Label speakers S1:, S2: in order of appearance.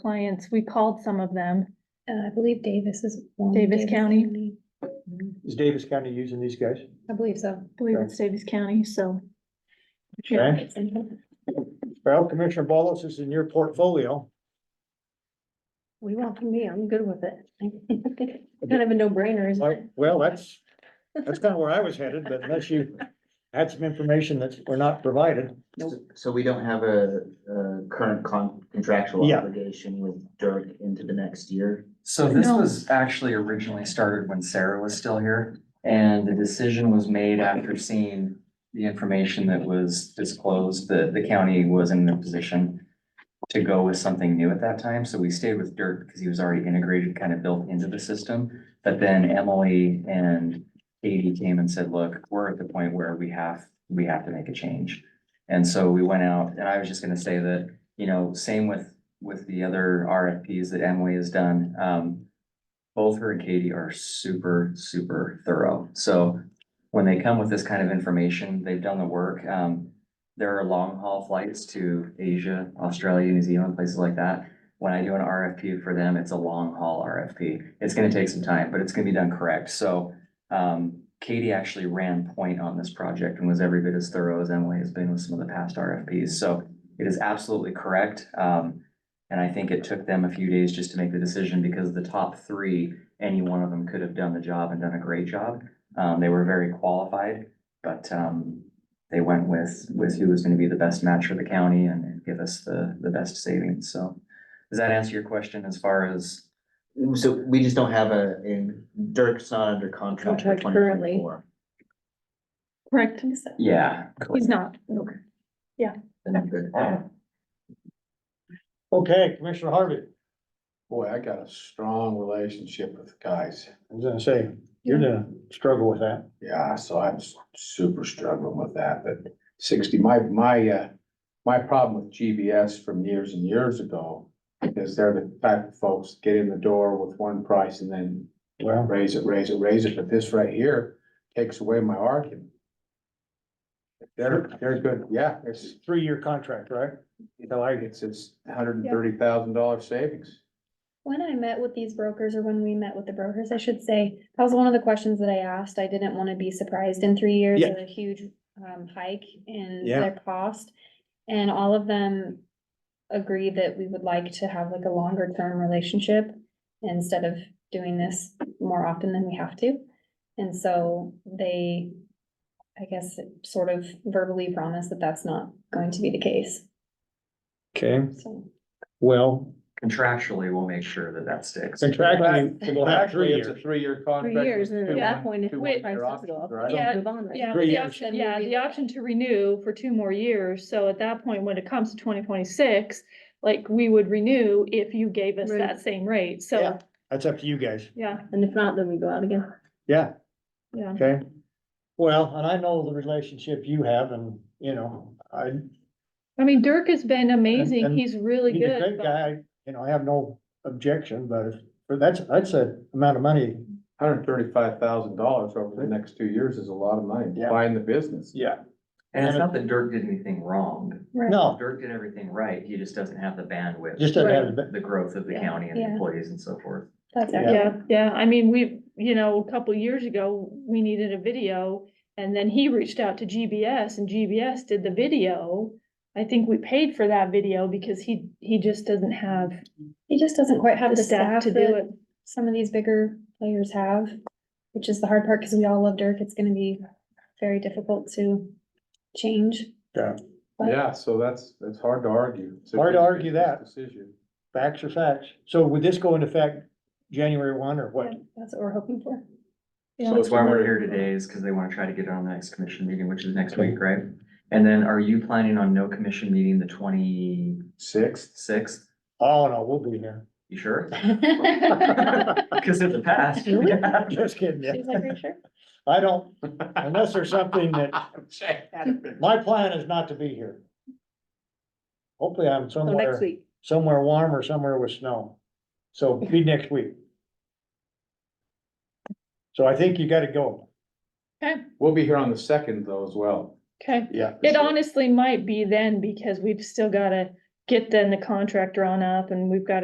S1: clients, we called some of them.
S2: Uh, I believe Davis is. one,
S1: Davis County.
S3: Is Davis County using these guys?
S2: I believe so.
S1: I believe
S3: Okay.
S1: it's Davis County, so. Yeah.
S3: Okay, well, Commissioner Ballas is in your portfolio.
S2: We want from me, I'm good with it. Kind of a no brainer, isn't
S3: Like,
S2: it?
S3: Well, that's, that's kind of where I was headed, but unless you had some information that were not provided.
S4: So- So we don't have a, a current con- contractual
S3: Yeah.
S4: obligation with Dirk into the next year?
S5: So this
S1: No.
S5: was actually originally started when Sarah was still here, and the decision was made after seeing the information that was disclosed, that the county was in a position to go with something new at that time, so we stayed with Dirk because he was already integrated, kind of built into the system. But then Emily and Katie came and said, look, we're at the point where we have, we have to make a change. And so we went out, and I was just gonna say that, you know, same with, with the other RFPs that Emily has done. Um, both her and Katie are super, super thorough. So when they come with this kind of information, they've done the work. Um, there are long haul flights to Asia, Australia, New Zealand, places like that. When I do an RFP for them, it's a long haul RFP. It's gonna take some time, but it's gonna be done correct. So um, Katie actually ran point on this project and was every bit as thorough as Emily has been with some of the past RFPs. So it is absolutely correct. Um, and I think it took them a few days just to make the decision because the top three, any one of them could have done the job and done a great job. Um, they were very qualified, but, um, they went with, with who was gonna be the best match for the county and give us the, the best savings. So does that answer your question as far as?
S4: So we just don't have a, in, Dirk's not under contract for
S2: Contract currently.
S4: 2024.
S1: Correct,
S5: Yeah.
S1: he's not.
S4: Then I'm good.
S2: Uh,
S3: Okay, Commissioner Harvey,
S6: Boy, I got a strong relationship with guys.
S3: I was gonna say, you're gonna struggle with that.
S6: Yeah, so I'm s- super struggling with that, but sixty, my, my, uh, my problem with GBS from years and years ago is they're the type of folks get in the door with one price and then
S3: Well,
S6: raise it, raise it, raise it, but this right here takes away my argument. They're, they're good, yeah, it's,
S3: it's a three-year contract, right?
S6: I like it, it's, it's hundred and thirty thousand dollar savings.
S2: When I met with these brokers, or when we met with the brokers, I should say, that was one of the questions that I asked. I didn't want to be surprised in three years
S3: Yeah.
S2: with a huge um hike in
S3: Yeah.
S2: their cost. And all of them agreed that we would like to have like a longer term relationship instead of doing this more often than we have to. And so they, I guess, sort of verbally promised that that's not going to be the case,
S3: Okay,
S2: so.
S3: well,
S5: Contractually, we'll make sure that that sticks.
S3: contractually, we'll have three
S6: Actually, it's a
S3: years.
S6: three-year contract.
S7: years,
S6: with
S7: and
S6: two
S7: at that
S6: one-
S7: point, if
S6: two
S7: it
S6: one-year
S7: prices
S6: options,
S7: go up,
S6: right?
S7: yeah.
S1: Yeah,
S7: Move on, right?
S1: yeah,
S3: Three
S1: the
S3: years.
S1: option, yeah, the option to renew for two more years, so at that point, when it comes to twenty twenty-six, like, we would renew if you gave us
S7: Right.
S1: that same rate,
S3: Yeah.
S1: so,
S3: That's up to you guys.
S1: yeah,
S7: And if not, then we go out again.
S3: Yeah,
S1: yeah.
S3: okay. Well, and I know the relationship you have and, you know, I,
S1: I mean, Dirk has been amazing,
S3: and
S1: he's really
S3: He's a
S1: good,
S3: great
S1: but
S3: guy, you know, I have no objection, but if, but that's, that's a amount of money.
S6: Hundred thirty-five thousand dollars over the next two years is a lot of money,
S3: Yeah.
S6: buying the business.
S3: Yeah.
S5: And it's not that Dirk did anything wrong.
S3: No,
S5: Dirk did everything right. He just doesn't have the bandwidth.
S3: just doesn't have, the-
S5: The growth of the
S2: Yeah.
S5: county and the
S2: Yeah.
S5: employees and so forth.
S2: That's
S3: Yeah.
S2: our
S1: yeah, yeah, I mean, we, you know, a couple years ago, we needed a video, and then he reached out to GBS, and GBS did the video. I think we paid for that video because he, he just doesn't have
S2: He just doesn't quite have
S1: the
S2: the
S1: staff
S2: staff
S1: to do
S2: that
S1: it.
S2: some of these bigger players have, which is the hard part, because we all love Dirk, it's gonna be very difficult to change.
S3: Yeah.
S2: But-
S6: Yeah, so that's, that's hard to argue. It's a
S3: Hard to
S6: good
S3: argue
S6: business
S3: that.
S6: Decision.
S3: facts are facts. So would this go into effect January one or what?
S2: That's what we're hoping for.
S1: Yeah.
S6: So
S5: That's
S6: it's
S5: why we're
S6: another-
S5: here today is because they want to try to get it on the next commission meeting, which is next week, right? And then are you planning on no commission meeting the twenty-sixth?
S6: Sixth,
S3: Oh, no, we'll be here.
S5: You sure? Because in the past.
S2: Really?
S3: Just kidding. yeah.
S2: She's like, "Are you sure?"
S3: I don't, unless there's something that, my plan is not to be here. Hopefully I'm
S7: So next
S3: somewhere,
S7: week.
S3: somewhere warm or somewhere with snow. So be next week. So I think you gotta go.
S6: we'll be here on the second though as well.
S1: Okay,
S3: Yeah.
S1: it honestly might be then, because we've still gotta get then the contract drawn up, and we've gotta